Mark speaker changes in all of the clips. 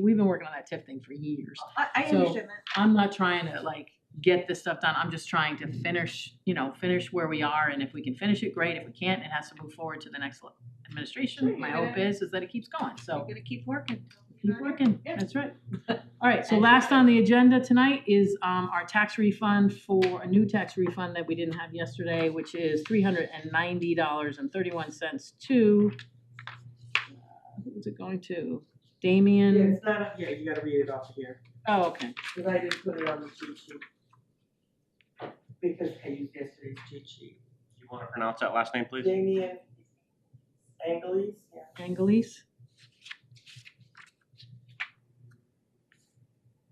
Speaker 1: We've been working on that TIF thing for years.
Speaker 2: I, I
Speaker 1: So-
Speaker 2: understand that.
Speaker 1: I'm not trying to like get this stuff done. I'm just trying to finish, you know, finish where we are. And if we can finish it, great. If we can't, it has to move forward to the next le- administration.
Speaker 2: Sure,
Speaker 1: My
Speaker 2: you're
Speaker 1: hope is, is that it keeps going.
Speaker 2: We're
Speaker 1: So
Speaker 2: gonna keep working.
Speaker 1: keep working.
Speaker 2: Yeah.
Speaker 1: That's right. All right. So last on the agenda tonight is um, our tax refund for a new tax refund that we didn't have yesterday, which is three hundred and ninety dollars and thirty-one cents to uh, who is it going to?
Speaker 3: Yeah,
Speaker 1: Damien?
Speaker 3: it's not, up here. you gotta read it off here,
Speaker 1: Oh, okay.
Speaker 3: cause I didn't put it on the cheat sheet. Because I used yesterday's cheat sheet.
Speaker 4: You wanna pronounce that last name, please?
Speaker 3: Damian Angelis, yeah.
Speaker 1: Angelis.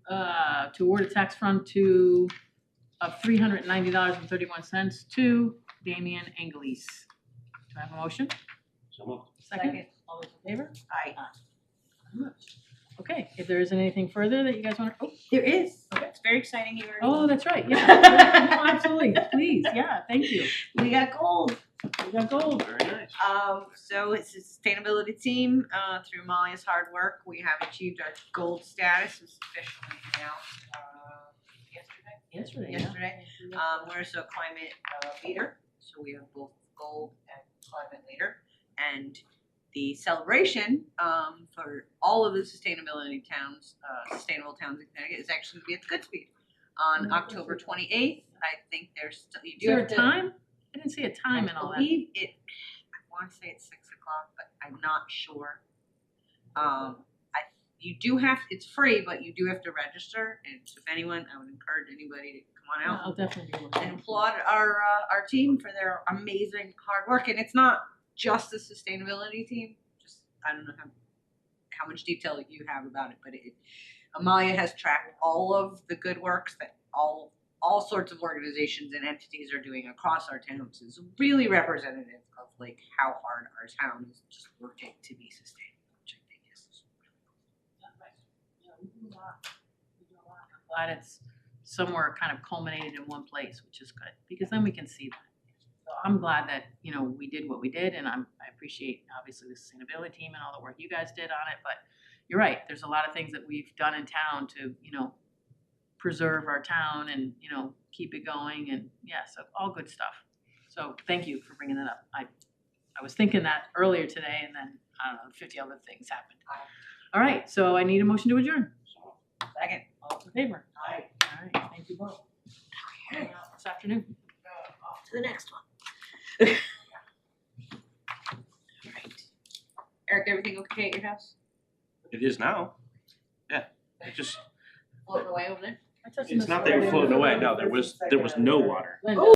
Speaker 1: Uh, to award a tax fund to, of three hundred and ninety dollars and thirty-one cents to Damian Angelis. Do I have a motion?
Speaker 4: So moved.
Speaker 1: Second. All those in favor?
Speaker 2: Aye.
Speaker 1: Very much. Okay, if there isn't anything further that you guys want to,
Speaker 2: There is.
Speaker 1: Okay.
Speaker 2: It's very exciting here.
Speaker 1: oh, that's right, yeah. No, Absolutely, please, yeah, thank you.
Speaker 2: We got gold.
Speaker 1: We got gold.
Speaker 4: Very nice.
Speaker 2: Um, so it's a sustainability team, uh, through Molly's hard work, we have achieved our gold status, it was officially announced, uh, yesterday,
Speaker 1: Yesterday, yeah.
Speaker 2: yesterday. Um, we're also a climate, uh, leader, so we have both gold and climate leader. And the celebration, um, for all of the sustainability towns, uh, sustainable towns in Connecticut is actually gonna be at Goodspeed
Speaker 1: Mm-hmm.
Speaker 2: on October twenty-eighth, I think there's still, you
Speaker 1: Is
Speaker 2: do
Speaker 1: there
Speaker 2: have
Speaker 1: a
Speaker 2: to.
Speaker 1: time? I didn't see a time and all
Speaker 2: I
Speaker 1: that.
Speaker 2: believe it, I wanna say it's six o'clock, but I'm not sure. Um, I, you do have, it's free, but you do have to register, and if anyone, I would encourage anybody to come on out
Speaker 1: I'll definitely be
Speaker 2: and
Speaker 1: looking.
Speaker 2: applaud our, uh, our team for their amazing hard work, and it's not just the sustainability team, just, I don't know how, how much detail you have about it, but it, Amaya has tracked all of the good works that all all sorts of organizations and entities are doing across our towns is really representative of like how hard our town is just working to be sustainable, which I think is
Speaker 1: Glad it's somewhere kind of culminated in one place, which is good, because then we can see that. So I'm glad that, you know, we did what we did, and I'm, I appreciate obviously the sustainability team and all the work you guys did on it, but you're right, there's a lot of things that we've done in town to, you know, preserve our town and, you know, keep it going, and yeah, so all good stuff. So thank you for bringing that up. I, I was thinking that earlier today, and then, I don't know, fifty other things happened. All right, so I need a motion to adjourn.
Speaker 2: second.
Speaker 1: All in favor?
Speaker 3: Aye.
Speaker 1: All right, thank you both. Hang out This afternoon.
Speaker 2: Off to the next one. Alright. Eric, everything okay at your house?
Speaker 4: It is now. Yeah, it just,
Speaker 2: Floating away over there?
Speaker 1: I touched
Speaker 4: it's
Speaker 1: this
Speaker 4: not that you're
Speaker 1: already.
Speaker 4: floating away, no, there was, there was no water.
Speaker 1: Linda.